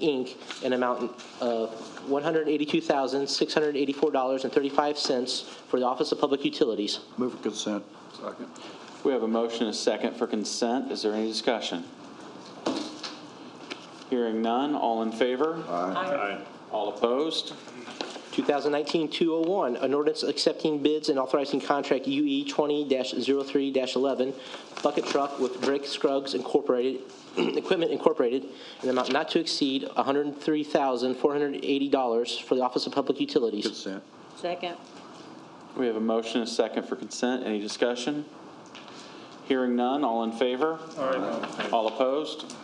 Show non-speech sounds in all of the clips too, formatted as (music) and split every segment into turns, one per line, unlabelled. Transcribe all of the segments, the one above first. Inc., an amount of $182,684.35 for the Office of Public Utilities.
Move for consent. Second.
We have a motion and a second for consent. Is there any discussion? Hearing none, all in favor?
Aye.
All opposed?
2019-201, an ordinance accepting bids and authorizing contract E UE 20-03-11, bucket truck with Drake Scruggs Incorporated, (clears throat) Equipment Incorporated, an amount not to exceed $103,480 for the Office of Public Utilities.
Consent.
Second.
We have a motion and a second for consent. Any discussion? Hearing none, all in favor? All opposed?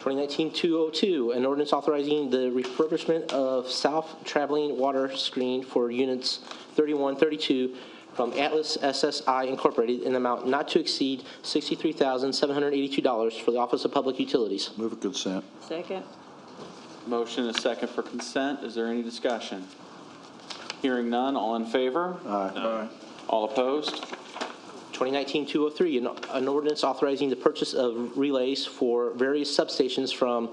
2019-202, an ordinance authorizing the refurbishment of south traveling water screen for units 3132 from Atlas SSI Incorporated in an amount not to exceed $63,782 for the Office of Public Utilities.
Move for consent.
Second.
Motion and a second for consent. Is there any discussion? Hearing none, all in favor?
Aye.
All opposed?
2019-203, an- an ordinance authorizing the purchase of relays for various substations from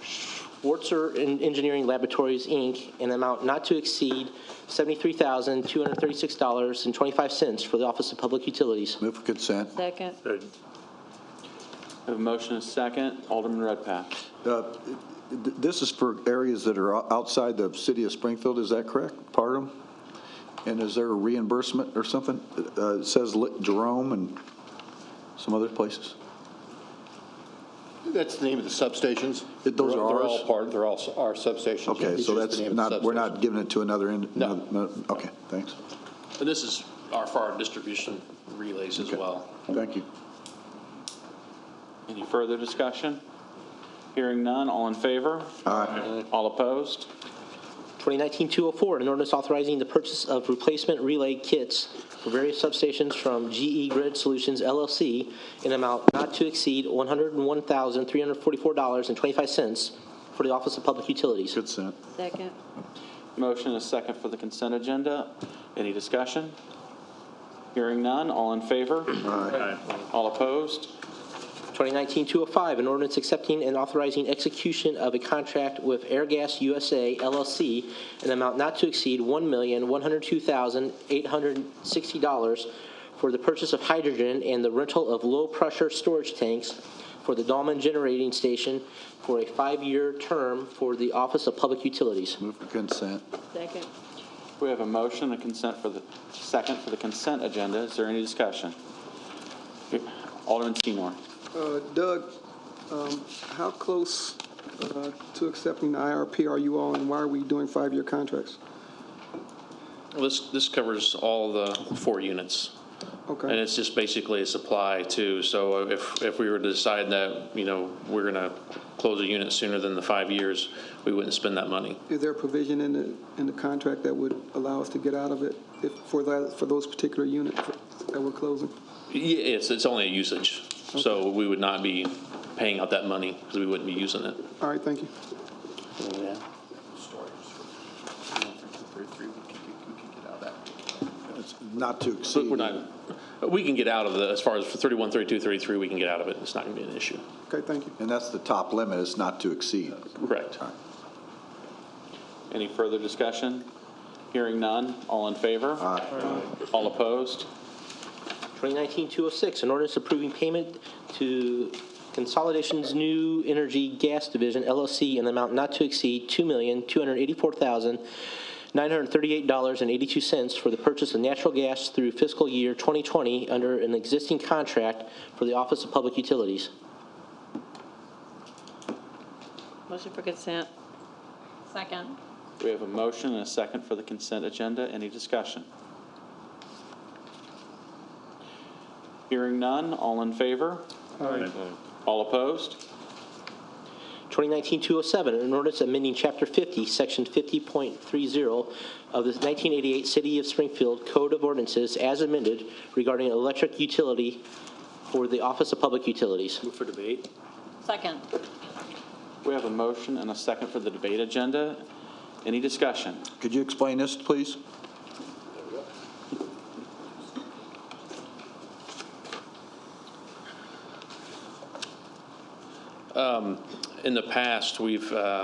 Schwartzer En- Engineering Laboratories, Inc., in an amount not to exceed $73,236.25 for the Office of Public Utilities.
Move for consent.
Second.
We have a motion and a second. Alderman Redpath.
Uh, th- This is for areas that are o- outside the city of Springfield, is that correct? Part of them? And is there a reimbursement or something? Uh, It says Li- Jerome and some other places.
That's the name of the substations.
It- those are
They're
ours?
all part, they're all s- our substations.
Okay,
It's
so
just the
that's
name of the
not, we're
substation.
not giving it to another, en-
No.
another- another- okay, thanks.
And this is our fire distribution relays as
Okay.
well.
Thank you.
Any further discussion? Hearing none, all in favor?
Aye.
All opposed?
2019-204, an ordinance authorizing the purchase of replacement relay kits for various substations from GE Grid Solutions LLC in an amount not to exceed $101,344.25 for the Office of Public Utilities.
Consent.
Second.
Motion and a second for the consent agenda. Any discussion? Hearing none, all in favor?
Aye.
All opposed?
2019-205, an ordinance accepting and authorizing execution of a contract with Airgas USA LLC in an amount not to exceed $1,102,860 for the purchase of hydrogen and the rental of low-pressure storage tanks for the Dahlman Generating Station for a five-year term for the Office of Public Utilities.
Move for consent.
Second.
We have a motion and consent for the, second for the consent agenda. Is there any discussion? Alderman Seymour.
Uh, Doug, um, how close uh, to accepting the IRP are you all, and why are we doing five-year contracts?
Well, This, this covers all the four units. And
Okay,
it's just basically a supply too. So uh, if, if we were to decide that, you know, we're going to close a unit sooner than the five years, we wouldn't spend that money.
is there a provision in the, in the contract that would allow us to get out of it if, for that, for those particular units that we're closing?
Yeah, it's, it's only a usage. So we would not be paying out that money because we wouldn't be using it.
All right, thank you.
It's Not to
But
exceed.
we're not, we can get out of the, as far as for 31, 32, 33, we can get out of it. It's not going to be an issue.
Okay, thank you.
And that's the top limit, it's not to exceed.
Correct.
All right.
Any further discussion? Hearing none, all in favor? All opposed?
2019-206, an ordinance approving payment to Consolidation's New Energy Gas Division LLC in the amount not to exceed $2,284,938.82 for the purchase of natural gas through fiscal year 2020 under an existing contract for the Office of Public Utilities.
Motion for consent. Second.
We have a motion and a second for the consent agenda. Any discussion? Hearing none, all in favor? All opposed?
2019-207, an ordinance amending Chapter 50, Section 50.30 of the 1988 City of Springfield Code of Ordinances as amended regarding electric utility for the Office of Public Utilities.
Second.
We have a motion and a second for the debate agenda. Any discussion?
Could you explain this, please?
In the past, we've, uh,